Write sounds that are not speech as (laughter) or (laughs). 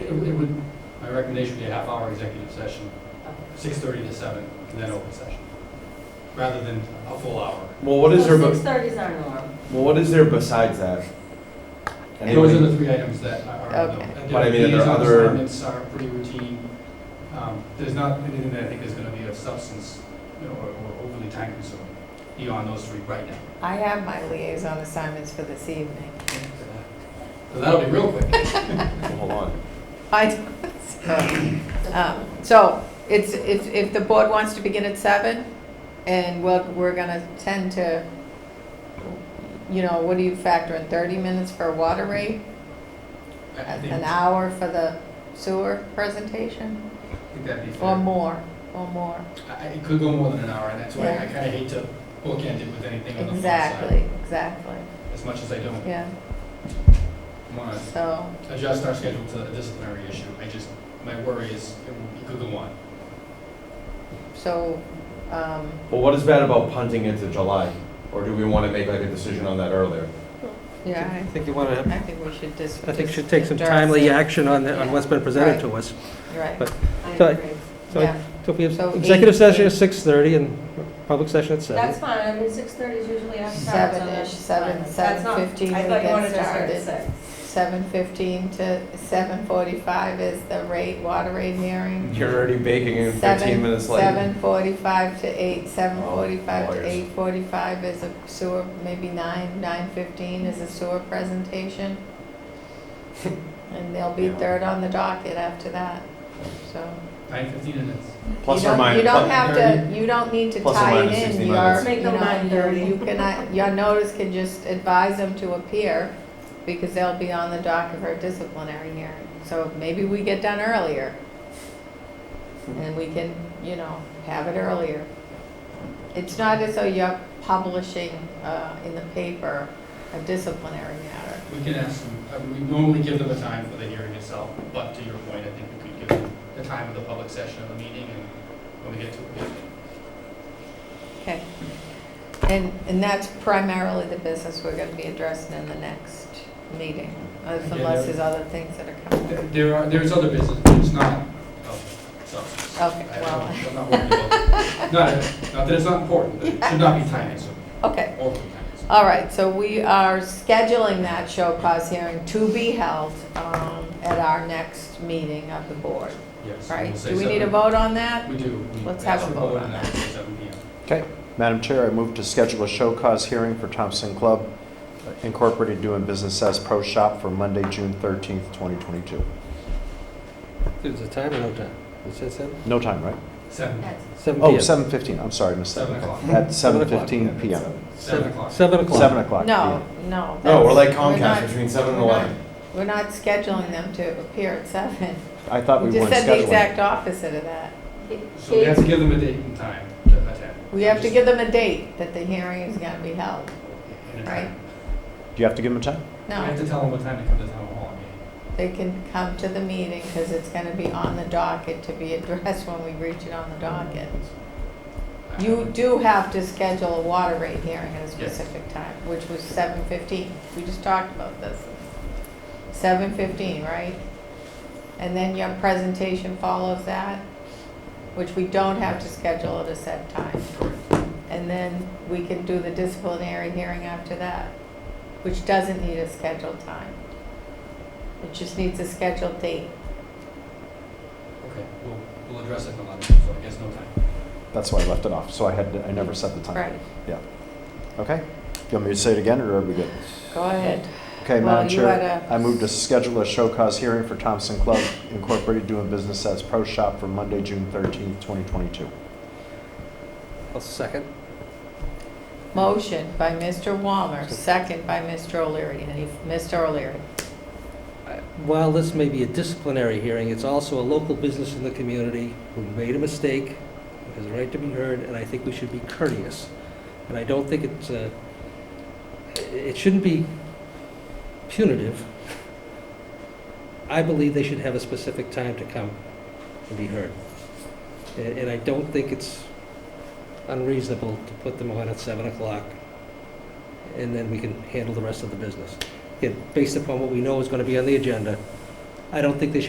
It it would, my recommendation would be a half hour executive session, Okay. six thirty to seven, and then open session, rather than a full hour. Well, what is there? Well, Be- six thirty is our norm. well, what is there besides that? Those are Anybody- the three items that are, Okay. are, But I the mean, are there liaison other- assignments are pretty routine. Um, There's not anything that I think is gonna be of substance, you know, or or overly time consuming beyond those three right now. I have my liaison assignments for this evening. So that'll be real quick. Well, hold on. I, (laughs) so, um, so it's, if, if the board wants to begin at seven, and we're, we're gonna tend to, you know, what do you factor in, thirty minutes for water rate? I- I think, An I hour for the sewer presentation, think that'd be or fair. more, or more? I- It could go more than an hour, and that's why I Yeah. kinda hate to bookend it with anything on the front side, Exactly, exactly, as much as I don't yeah, wanna so, adjust our schedule to a disciplinary issue. I just, my worry is it will- it could go on. so, um, Well, what is bad about punting it to July? Or do we want to make like a decision on that earlier? yeah, I think you want I, to, I think we should just. I think should just take some endorse timely it. action on, the- on what's been presented Right. to us. Right, but- I So I- agree. So yeah. I- so if we So have executive eight- session eight. at 6:30 and public session at 7. That's fine, I mean, six thirty is usually after. hours, so Seven-ish, that's seven, fine. That's not- 7:15 I we thought you get wanted to start at started. six. Seven fifteen to seven forty-five is the rate, water rate hearing. You're already baking in 15 Seven- minutes late. Seven forty-five to eight, seven Oh, forty-five to lawyers. eight forty-five is a sewer, maybe nine, nine fifteen is a sewer (laughs) presentation. And they'll be Yeah. third on the docket after that, so. Nine fifteen minutes. Plus You or don't- minus. You don't plu- have to, you don't need to Plus or tie minus it 60 in, your, minutes. Make you them know, your, 9:30. you cannot, your notice can just advise them to appear, because they'll be on the docket for a disciplinary hearing, so maybe we get done earlier. And we can, you know, have it earlier. It's not as though you're publishing, uh, in the paper a disciplinary matter. We can ask them, I mean, we normally give them a time for the hearing itself, but to your point, I think we could give them the time of the public session of the meeting and when we get to it. Okay. And, and that's primarily the business we're gonna be addressing in the next meeting, unless there's other things that are coming. There- There are, there's other business, but it's not of substance. Okay, Oh, I- I well. don't- I'm not worried (laughs) about, not, not that it's not important, but it should not be time consuming, Okay, overly time consuming. all right, so we are scheduling that show cause hearing to be held um, at our next meeting of the board, Yes. right? we'll say Do we need a seven. vote on that? We do. We Let's have a ask for vote on and that. then say Seven P M. Okay, Madam Chair, I move to schedule a show cause hearing for Thompson Club Incorporated doing business as Pro Shop for Monday, June 13th, 2022. Is it time or no time? It said 7? No time, right? Seven, That's- 7 Oh, PM. 7:15, I'm sorry, missed that. Seven o'clock. Okay. At Seven o'clock, 7:15 PM. seven o'clock. 7 o'clock. 7 o'clock. No, PM. no. No, we're like that's- we're not- Comcast between 7 and we're not- 11. We're not scheduling them to appear at seven. I thought We we just weren't said the scheduling. exact opposite of that. So we have to give them a date and time to attend. We have to give them a date that the hearing is gonna be held. And a time. right. Do you have to give them a time? We have No, to tell them what time to come to town hall meeting. they can come to the meeting because it's gonna be on the docket to be addressed when we reach it on the docket. You do have to schedule a water rate hearing at a Yes. specific time, which was seven fifteen. We just talked about this. Seven fifteen, right? And then your presentation follows that, which we don't have to schedule at a set time. And then we can do the disciplinary hearing after that, which doesn't need a scheduled time. It just needs a scheduled date. Okay, we'll, we'll address it in a lot, so I guess no time. That's why I left it off, so I had, I never set the time. Right, Okay, you want me to say it again, or are we good? go ahead. Okay, Well, Madam you Chair, had a- I move to schedule a show cause hearing for Thompson Club Incorporated doing business as Pro Shop for Monday, June 13th, 2022. I'll second. Motion by Mr. Walmer, second by Mr. O'Leary. Any, Mr. O'Leary? While this may be a disciplinary hearing, it's also a local business in the community who made a mistake, who has a right to be heard, and I think we should be courteous. And I don't think it's, uh, it shouldn't be punitive. I believe they should have a specific time to come and be heard. A- And I don't think it's unreasonable to put them on at 7 o'clock, and then we can handle the rest of the business again, based upon what we know is going to be on the agenda, I don't think they should